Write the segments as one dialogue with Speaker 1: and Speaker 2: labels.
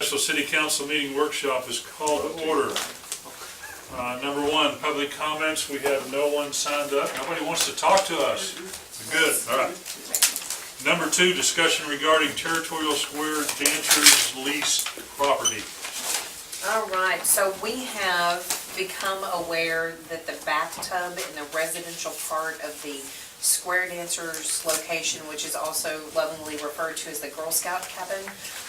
Speaker 1: Special City Council meeting workshop is called to order. Uh, Number one, public comments, we have no one signed up, nobody wants to talk to us. Good, all right. Number two, discussion regarding Territorial Square Dancers lease property.
Speaker 2: All right, so we have become aware that the bathtub in the residential part of the Square Dancers location, which is also lovingly referred to as the Girl Scout cabin,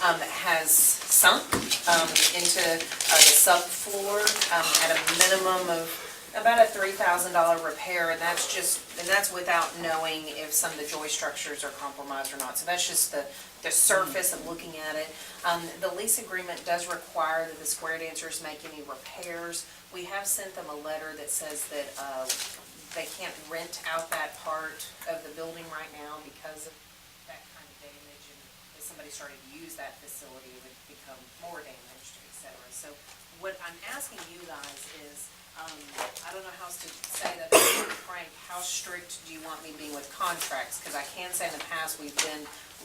Speaker 2: um, has sunk, um, into, uh, the subfloor, um, at a minimum of about a three thousand dollar repair, and that's just, and that's without knowing if some of the joy structures are compromised or not. So that's just the, the surface of looking at it. Um, the lease agreement does require that the square dancers make any repairs. We have sent them a letter that says that, uh, they can't rent out that part of the building right now because of that kind of damage. And if somebody started to use that facility, it would become more damaged, et cetera. So what I'm asking you guys is, um, I don't know how else to say that, but Frank, how strict do you want me to be with contracts? Because I can say in the past, we've been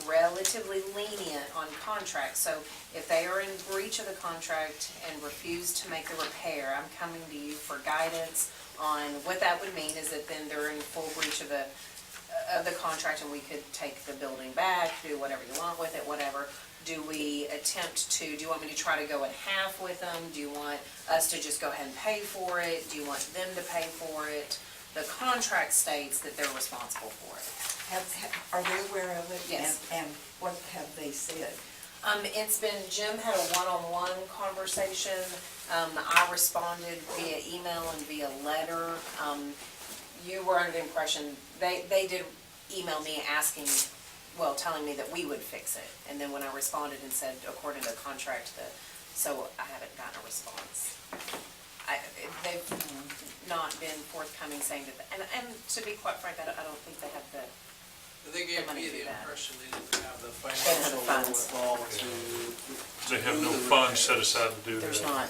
Speaker 2: relatively lenient on contracts. So if they are in breach of the contract and refuse to make the repair, I'm coming to you for guidance on what that would mean is that then they're in full breach of the, of the contract and we could take the building back, do whatever you want with it, whatever. Do we attempt to, do you want me to try to go in half with them? Do you want us to just go ahead and pay for it? Do you want them to pay for it? The contract states that they're responsible for it.
Speaker 3: Have, have- are they aware of it?
Speaker 2: Yes.
Speaker 3: And, and what have they said?
Speaker 2: Um, it's been, Jim had a one-on-one conversation, um, I responded via email and via letter. Um, you were under the impression, they, they did email me asking, well, telling me that we would fix it. And then when I responded and said, according to the contract, the, so I haven't gotten a response. I, they've not been forthcoming saying that, and, and to be quite frank, I don't, I don't think they have the
Speaker 4: They gave
Speaker 2: money
Speaker 4: me
Speaker 2: to do
Speaker 4: the
Speaker 2: that.
Speaker 4: impression they didn't have the
Speaker 2: have the
Speaker 4: financial
Speaker 2: funds.
Speaker 4: wherewithal to,
Speaker 1: They have no funds set aside to do that.
Speaker 2: There's not.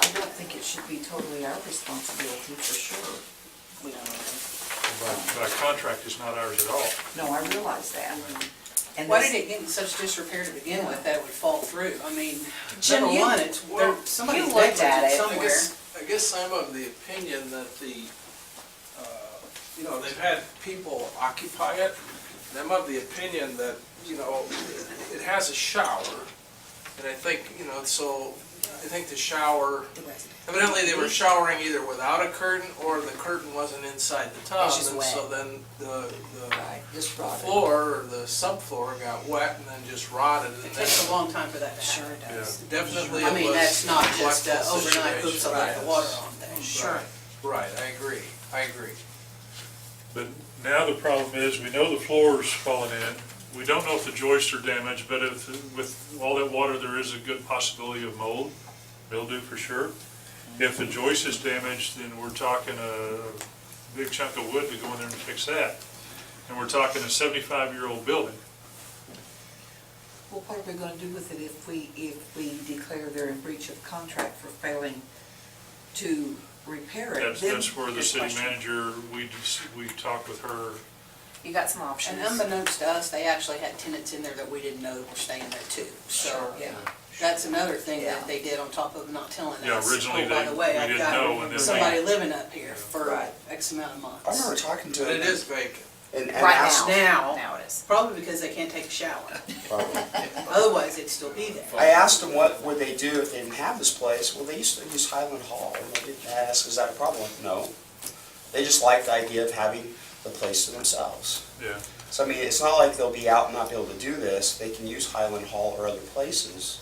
Speaker 3: I don't think it should be totally our responsibility for sure. We don't know.
Speaker 1: By uh, contract, it's not ours at all.
Speaker 3: No, I realize that. And
Speaker 5: Why
Speaker 3: this-
Speaker 5: did it get in such disrepair to begin with that it would fall through? I mean,
Speaker 2: Jim,
Speaker 5: number
Speaker 2: you-
Speaker 5: one, it's, there,
Speaker 4: Well,
Speaker 5: somebody's
Speaker 2: you looked at
Speaker 5: negligent
Speaker 2: it.
Speaker 4: I
Speaker 5: somewhere.
Speaker 4: guess, I guess I'm of the opinion that the, uh, you know, they've had people occupy it. And I'm of the opinion that, you know, it has a shower. And I think, you know, so I think the shower,
Speaker 3: The resident.
Speaker 4: evidently they were showering either without a curtain or the curtain wasn't inside the tub.
Speaker 2: It's just
Speaker 4: And so
Speaker 2: wet.
Speaker 4: then the, the
Speaker 3: Right, just
Speaker 4: the
Speaker 3: brought it.
Speaker 4: floor or the subfloor got wet and then just rotted. and
Speaker 5: It takes a
Speaker 4: then
Speaker 5: long time for that to happen.
Speaker 2: does.
Speaker 4: Definitely
Speaker 5: I
Speaker 4: it
Speaker 5: mean,
Speaker 4: was
Speaker 5: that's not just
Speaker 4: a
Speaker 5: uh,
Speaker 4: collectible
Speaker 5: overnight, oops, I left
Speaker 4: situation.
Speaker 5: the water on there.
Speaker 4: Right, Right, I agree, I agree.
Speaker 1: But now the problem is, we know the floor's fallen in, we don't know if the joists are damaged, but if, with all that water, there is a good possibility of mold, mildew for sure. If the joist is damaged, then we're talking a big chunk of wood to go in there and fix that. And we're talking a seventy-five-year-old building.
Speaker 3: Well, what are we gonna do with it if we, if we declare they're in breach of contract for failing to repair it?
Speaker 1: That's,
Speaker 3: Then-
Speaker 1: that's where the
Speaker 2: good
Speaker 1: city
Speaker 2: question.
Speaker 1: manager, we, dis- we talked with her,
Speaker 2: You got some options.
Speaker 5: And unbeknownst to us, they actually had tenants in there that we didn't know that were staying there too. So
Speaker 3: Sure, yeah.
Speaker 5: that's another thing
Speaker 3: Yeah.
Speaker 5: that they did on top of not telling us.
Speaker 1: Yeah, originally
Speaker 5: Oh, by
Speaker 1: they-
Speaker 5: the way,
Speaker 1: we
Speaker 5: I've
Speaker 1: didn't
Speaker 5: got
Speaker 1: know, and then they-
Speaker 5: Somebody living up here for
Speaker 3: Right.
Speaker 5: X amount of
Speaker 6: I
Speaker 5: months.
Speaker 6: remember talking to
Speaker 4: But
Speaker 6: him
Speaker 4: it is vacant.
Speaker 6: and, and
Speaker 2: Right
Speaker 6: asked,
Speaker 2: now,
Speaker 5: Now-
Speaker 2: now it is.
Speaker 5: Probably because they can't take a shower.
Speaker 6: Probably.
Speaker 5: Otherwise, it'd still be there.
Speaker 6: I asked him what would they do if they didn't have this place. Well, they used to use Highland Hall, and I didn't ask, is that a problem? No. They just like the idea of having the place to themselves.
Speaker 1: yeah.
Speaker 6: So I mean, it's not like they'll be out and not be able to do this. They can use Highland Hall or other places.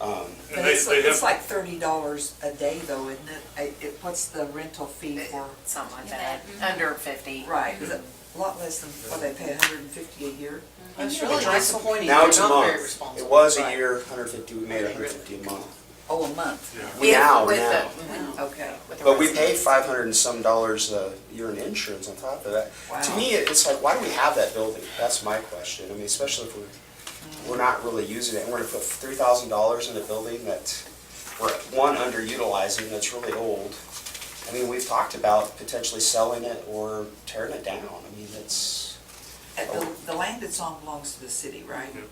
Speaker 6: Um,
Speaker 1: And
Speaker 3: But
Speaker 1: they,
Speaker 3: it's,
Speaker 1: they
Speaker 3: it's
Speaker 1: have,
Speaker 3: like thirty dollars a day though, isn't it? I- it? What's the rental fee for?
Speaker 2: Something like that, under fifty.
Speaker 3: Right, it's a lot less than, what, they pay hundred and fifty a year?
Speaker 5: It's really disappointing.
Speaker 6: now
Speaker 5: They're
Speaker 6: it's a
Speaker 5: not very
Speaker 6: month. It
Speaker 5: responsible.
Speaker 6: was a
Speaker 5: Right.
Speaker 6: year, 150. We made
Speaker 5: They really-
Speaker 6: 150 a month.
Speaker 3: Oh, a month?
Speaker 1: yeah.
Speaker 6: We
Speaker 2: If-
Speaker 6: now
Speaker 2: with
Speaker 6: now.
Speaker 2: the- mm-hmm.
Speaker 3: Okay.
Speaker 2: with the
Speaker 6: But we paid
Speaker 2: residents.
Speaker 6: five hundred and some dollars a year in insurance on top of that. To
Speaker 3: Wow.
Speaker 6: me, it- it's like, why do we have that building? That's my question. I mean, especially if we're, we're not really using it. and We're gonna put three thousand dollars in a building that we're, one, underutilizing, that's really old. I mean, we've talked about potentially selling it or tearing it down. I mean, it's,
Speaker 3: And the, the land it's on belongs to the city, right?
Speaker 1: Yep.